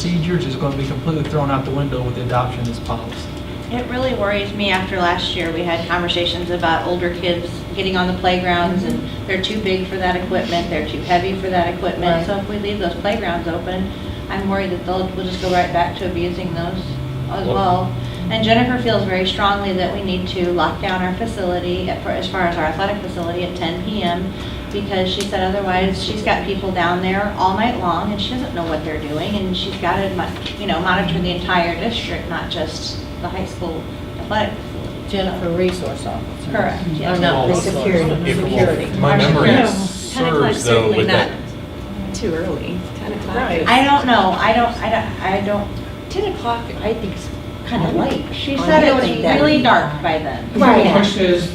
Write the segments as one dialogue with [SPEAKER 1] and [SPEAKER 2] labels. [SPEAKER 1] procedures is going to be completely thrown out the window with the adoption of this policy.
[SPEAKER 2] It really worries me after last year. We had conversations about older kids getting on the playgrounds and they're too big for that equipment, they're too heavy for that equipment.
[SPEAKER 3] Right.
[SPEAKER 2] So if we leave those playgrounds open, I'm worried that they'll, we'll just go right back to abusing those as well. And Jennifer feels very strongly that we need to lock down our facility at- for- as far as our athletic facility at 10 PM because she said otherwise she's got people down there all night long and she doesn't know what they're doing and she's got to, you know, monitor the entire district, not just the high school athletic facility.
[SPEAKER 3] Jennifer Resource Officer.
[SPEAKER 2] Correct,
[SPEAKER 3] Oh,
[SPEAKER 2] yes.
[SPEAKER 3] no, the
[SPEAKER 4] Well,
[SPEAKER 3] security,
[SPEAKER 4] if- well,
[SPEAKER 3] security.
[SPEAKER 4] My
[SPEAKER 2] Our
[SPEAKER 4] memory
[SPEAKER 2] security.
[SPEAKER 5] Ten o'clock's
[SPEAKER 4] serves though
[SPEAKER 5] certainly
[SPEAKER 4] with
[SPEAKER 5] not
[SPEAKER 4] that.
[SPEAKER 5] too early. Ten o'clock.
[SPEAKER 3] Right.
[SPEAKER 5] I-
[SPEAKER 2] I don't know, I don't, I don't, I don't,
[SPEAKER 5] Ten o'clock, I think is
[SPEAKER 2] kind
[SPEAKER 4] Oh.
[SPEAKER 2] of late. She
[SPEAKER 3] I
[SPEAKER 2] said it
[SPEAKER 3] Oh, don't
[SPEAKER 2] was
[SPEAKER 3] think that
[SPEAKER 2] really
[SPEAKER 3] would-
[SPEAKER 2] dark by then.
[SPEAKER 5] Right.
[SPEAKER 6] The question is,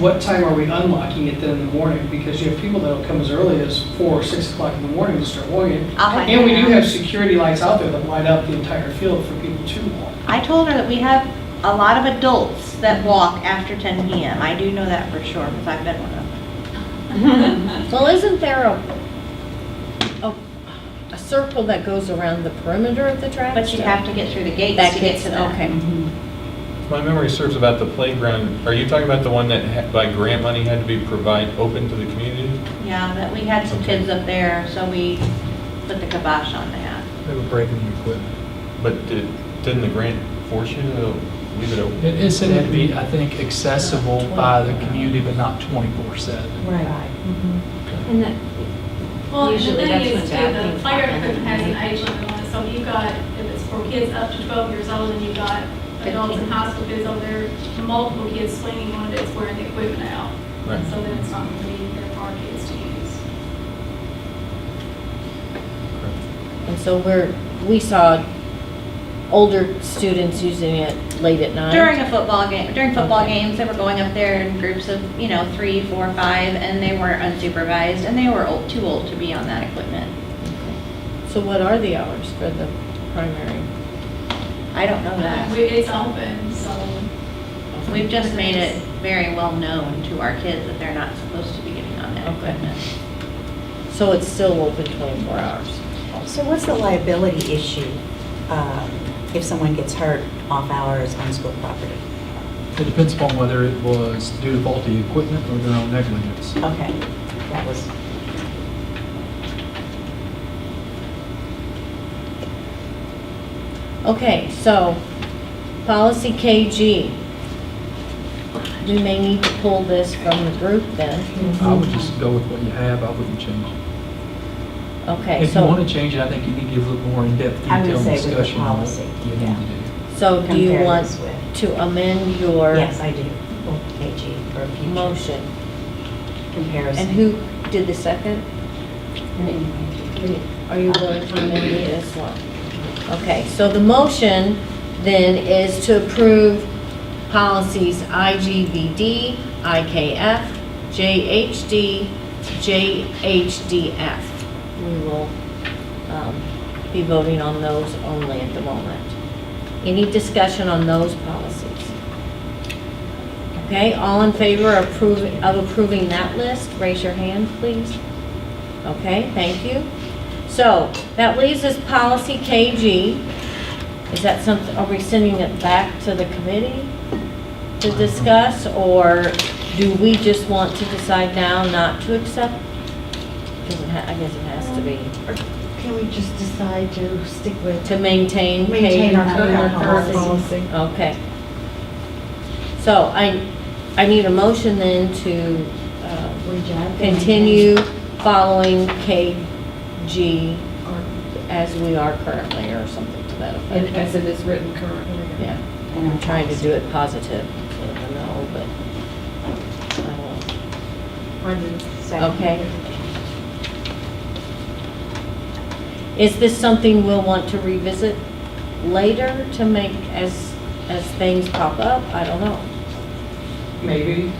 [SPEAKER 6] what time are we unlocking it then in the morning? Because you have people that'll come as early as four or six o'clock in the morning to start walking.
[SPEAKER 2] I'll find
[SPEAKER 6] And we
[SPEAKER 2] out.
[SPEAKER 6] do have security lights out there that light up the entire field for people to walk.
[SPEAKER 2] I told her that we have a lot of adults that walk after 10 PM. I do know that for sure, because I've been one of them.
[SPEAKER 3] Well, isn't there a, a, a circle that goes around the perimeter of the track?
[SPEAKER 2] But you
[SPEAKER 3] still?
[SPEAKER 2] have to get through the gates
[SPEAKER 3] That
[SPEAKER 2] to get
[SPEAKER 3] gets,
[SPEAKER 2] to that.
[SPEAKER 3] okay.
[SPEAKER 4] If My memory serves about the playground. Are you talking about the one that ha- by grant money had to be provide, open to the community?
[SPEAKER 2] Yeah, but we had some kids up there, so we put the kibosh on that.
[SPEAKER 7] They were breaking the equipment.
[SPEAKER 4] But did- didn't the grant force you to leave it open?
[SPEAKER 1] It is said it had to be, I think, accessible by the community, but not 24/7.
[SPEAKER 3] Right.
[SPEAKER 5] And that,
[SPEAKER 8] Well, and the
[SPEAKER 5] Usually
[SPEAKER 8] thing
[SPEAKER 5] that's
[SPEAKER 8] is
[SPEAKER 5] when
[SPEAKER 8] too,
[SPEAKER 5] bad
[SPEAKER 8] the
[SPEAKER 5] things
[SPEAKER 8] fire
[SPEAKER 5] happen.
[SPEAKER 8] department has an age limit on it, so you've got, if it's for kids up to twelve years old, and you've got adults and high school kids over there, multiple kids swinging on it, it's wearing the equipment out.
[SPEAKER 4] Right.
[SPEAKER 8] So then it's not gonna be there for our kids to use.
[SPEAKER 3] And so we're, we saw older students using it late at night.
[SPEAKER 2] During a football game, during football
[SPEAKER 3] Okay.
[SPEAKER 2] games, they were going up there in groups of, you know, three, four, five, and they were unsupervised, and they were old, too old to be on that equipment.
[SPEAKER 3] So what are the hours for the primary?
[SPEAKER 2] I don't know
[SPEAKER 8] We-
[SPEAKER 2] that.
[SPEAKER 8] It's open, so.
[SPEAKER 2] We've just made it very well known to our kids that they're not supposed to be getting on that
[SPEAKER 3] Okay.
[SPEAKER 2] equipment.
[SPEAKER 3] So it's still open 24 hours?
[SPEAKER 9] So what's the liability issue um, if someone gets hurt off hours on school property?
[SPEAKER 7] It depends upon whether it was due to faulty equipment or their own negligence.
[SPEAKER 9] Okay, that was,
[SPEAKER 3] Okay, so, policy KG. We may need to pull this from the group
[SPEAKER 10] Mm-hmm.
[SPEAKER 3] then.
[SPEAKER 7] I would just go with what you have, I wouldn't change it.
[SPEAKER 3] Okay,
[SPEAKER 1] If you want
[SPEAKER 3] so,
[SPEAKER 1] to change it, I think you need to give a little more in-depth
[SPEAKER 9] I would
[SPEAKER 1] detailed
[SPEAKER 9] say with the
[SPEAKER 1] discussion on what
[SPEAKER 9] policy,
[SPEAKER 1] you need
[SPEAKER 9] yeah.
[SPEAKER 1] to do.
[SPEAKER 3] so do you
[SPEAKER 9] Compare
[SPEAKER 3] want
[SPEAKER 9] this with-
[SPEAKER 3] to amend your
[SPEAKER 9] yes, I do, AG, for future
[SPEAKER 3] motion?
[SPEAKER 9] comparison.
[SPEAKER 3] And who did the second? Are you willing to amend it as well? Okay, so the motion then is to approve policies IGVD, IKF, JHD, JHDF. We will um, be voting on those only at the moment. Any discussion on those policies? Okay, all in favor of approving, of approving that list, raise your hand, please. Okay, thank you. So that leaves us policy KG. Is that something, are we sending it back to the committee to discuss? Or do we just want to decide now not to accept? Does it ha- I guess it has to be,
[SPEAKER 10] Can we just decide to stick with,
[SPEAKER 3] to maintain.
[SPEAKER 10] maintain our
[SPEAKER 3] KG?
[SPEAKER 10] current
[SPEAKER 3] Current
[SPEAKER 10] policy?
[SPEAKER 3] Okay. So I, I need a motion then to uh,
[SPEAKER 10] Reject.
[SPEAKER 3] continue following KG
[SPEAKER 10] Or-
[SPEAKER 3] as we are currently, or something to that
[SPEAKER 5] and
[SPEAKER 3] effect.
[SPEAKER 5] as it is written currently.
[SPEAKER 3] Yeah,
[SPEAKER 9] And
[SPEAKER 3] I'm trying to do it positive, so I don't know, but I won't. Okay. uh, Is this something we'll want to revisit later to make, as, as things pop up? I don't know.
[SPEAKER 6] Maybe,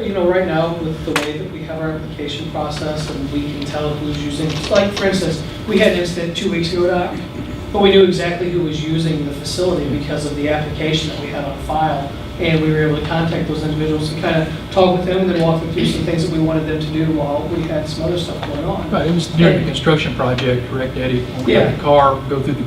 [SPEAKER 6] you know, right now with the way that we have our application process and we can tell who's using, like, for instance, we had an incident two weeks ago, Doc, but we knew exactly who was using the facility because of the application that we had on file. And we were able to contact those individuals and kind of talk with them and then walk them through some things that we wanted them to do while we had some other stuff going on.
[SPEAKER 1] Right, it was during the construction project, correct, Eddie? When we
[SPEAKER 6] Yeah.
[SPEAKER 1] had the car go through the